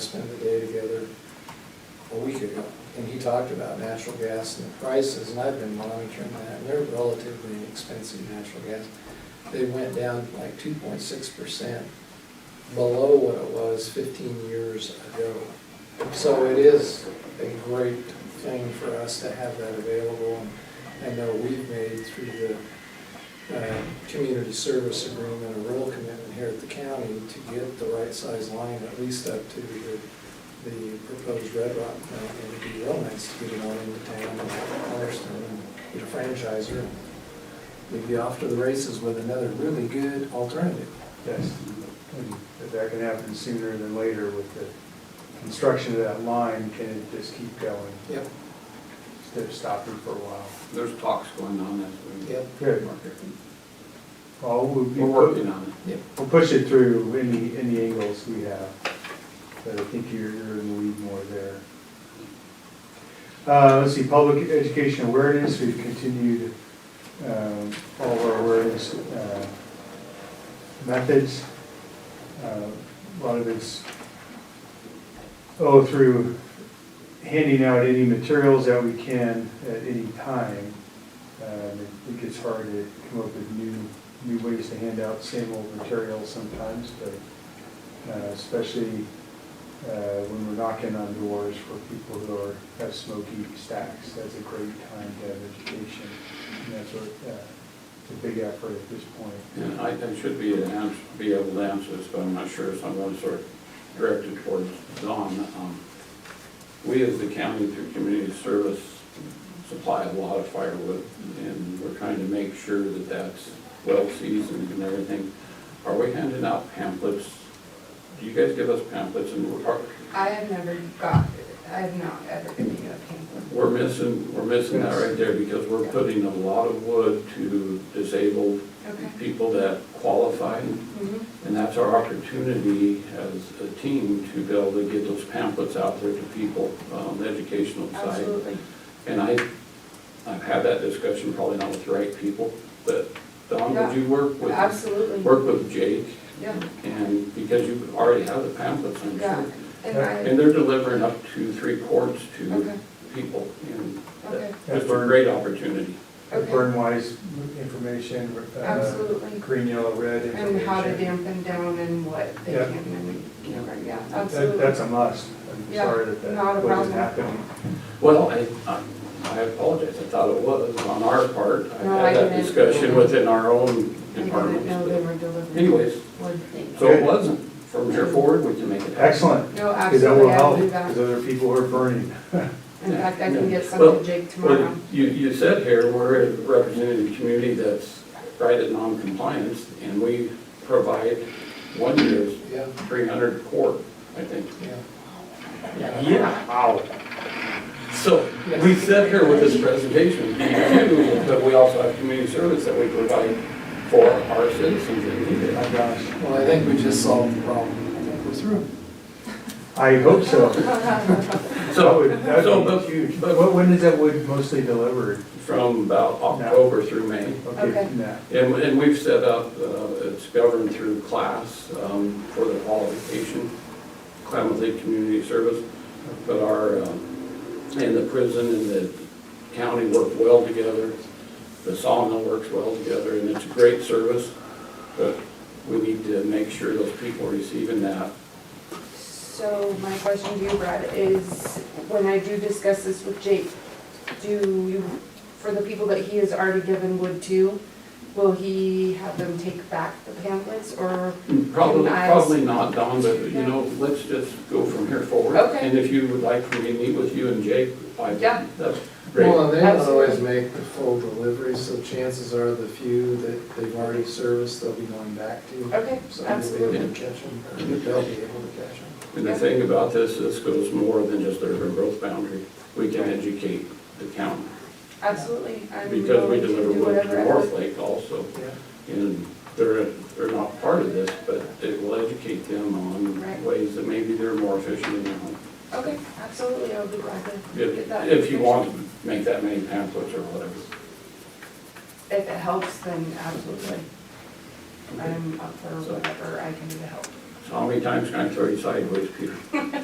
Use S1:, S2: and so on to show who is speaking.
S1: the other, a week ago, and he talked about natural gas and the prices, and I've been monitoring that, and they're relatively expensive, natural gas. They went down like two point six percent below what it was fifteen years ago. So it is a great thing for us to have that available, and I know we've made through the uh, community service agreement, a real commitment here at the county to get the right size line, at least up to the, the proposed Red Rock plant. And it'd be real nice to get it on into town and Cornerstone and get a franchiser. We'd be off to the races with another really good alternative.
S2: Yes, and if that can happen sooner than later with the construction of that line, can it just keep going
S1: Yep.
S2: instead of stopping for a while?
S3: There's talks going on as we.
S1: Yep.
S2: Good. Well, we'll, be-
S3: We're working on it.
S1: Yep.
S2: we'll push it through any, any angles we have, but I think you're, you're in the lead more there. Uh, let's see, public education awareness, we've continued, um, all of our awareness, uh, methods. Uh, A lot of it's, oh, through handing out any materials that we can at any time. Um, it- It gets hard to come up with new, new ways to hand out same old materials sometimes, but uh, especially uh, when we're knocking on doors for people who are, have smoky stacks, that's a great time to have education. And that's what, uh, it's a big effort at this point.
S3: And I, I should be, able to ans- be able to answer this, but I'm not sure, so I'm going to sort of direct it towards Don. Um, We as the county through community service supply a lot of firewood, and we're trying to make sure that that's well seasoned and everything. Are we handing out pamphlets? Do you guys give us pamphlets and we're, talk-
S4: I have never got, I have not ever given you a pamphlet.
S3: We're missing, we're missing that right there because we're putting a lot of wood to disabled
S4: Okay.
S3: people that qualify.
S4: Mhm.
S3: And that's our opportunity as a team to be able to get those pamphlets out there to people, um, the educational side.
S4: Absolutely.
S3: And I, I've had that discussion probably not with the right people, but Don, would you work with,
S4: Absolutely.
S3: work with Jake?
S4: Yeah,
S3: And because you already have the pamphlets, I'm
S4: yeah.
S3: sure.
S4: And I,
S3: And they're delivering up to three quarts to
S4: Okay.
S3: people and that-
S4: okay,
S3: it's a great opportunity.
S4: okay,
S2: Burn wise information. uh,
S4: absolutely.
S2: Green, yellow, red information.
S4: And how to dampen down and what they
S2: Yeah.
S4: can and can't, yeah,
S2: That- That's
S4: absolutely.
S2: a must. I'm
S4: Yeah,
S2: sorry that
S4: not a
S2: that
S4: problem.
S2: wasn't happening.
S3: Well, I, I- I apologize, I thought it was on our part. I
S4: No, I
S3: had that
S4: didn't.
S3: discussion within our own
S4: I didn't know they
S3: department.
S4: were delivering
S3: Anyways,
S4: wood things.
S3: so it wasn't. From here forward, we can make it. happen.
S2: Excellent,
S4: No,
S2: because that will
S4: absolutely, I'll
S2: help,
S4: do
S2: because
S4: that.
S2: other people are burning.
S4: In fact, I can get some
S3: Well,
S4: to Jake tomorrow.
S3: Well, you, you said here, we're representing a community that's right at non-compliance, and we provide one year's
S1: Yeah,
S3: three hundred quart, I think.
S1: yeah.
S3: Yeah. Wow. So, we sit here with this presentation, we do, but we also have community service that we provide for our citizens that need
S2: My
S3: it.
S2: gosh,
S1: Well, I think we just solved the problem. I think we're through.
S2: I hope so. That
S3: So,
S2: would- that
S3: so,
S2: would be huge.
S3: but,
S2: But
S3: but
S2: what- when is that wood mostly delivered?
S3: from about October through May,
S4: Okay.
S2: from that.
S3: and, and we've set up, uh, it's governed through class, um, for the qualification, Klamath Lake Community Service, but our, um, and the prison and the county work well together, the sawmill works well together, and it's a great service, but we need to make sure those people are receiving that.
S4: So my question to you, Brad, is when I do discuss this with Jake, do you, for the people that he has already given wood to, will he have them take back the pamphlets or,
S3: Probably,
S4: Nice.
S3: probably not, Don, but, you know, let's just go from here forward.
S4: Okay.
S3: And if you would like for me to meet with you and Jake, I,
S4: Yeah.
S3: that's great.
S1: Well, and they don't always make the full delivery, so chances are the few that they've already serviced, they'll be going back to.
S4: okay,
S1: So they'll be
S4: absolutely.
S1: able to catch them, or they'll be able to catch them.
S3: And the thing about this, this goes more than just urban growth boundary. We can educate the county,
S4: Absolutely. I'm
S3: because we
S4: willing to
S3: deliver
S4: do
S3: wood
S4: whatever
S3: to
S4: I-
S3: North Lake also.
S1: Yeah.
S3: And they're, they're not part of this, but it will educate them
S4: Right.
S3: on ways that maybe they're more efficient in their home.
S4: Okay, absolutely, I'll be glad to get
S3: If,
S4: that.
S3: if you
S4: information.
S3: want to make that many pamphlets or whatever.
S4: If it helps, then absolutely. I'm up for whatever I can do to help.
S3: So how many times can I throw you sideways, Peter?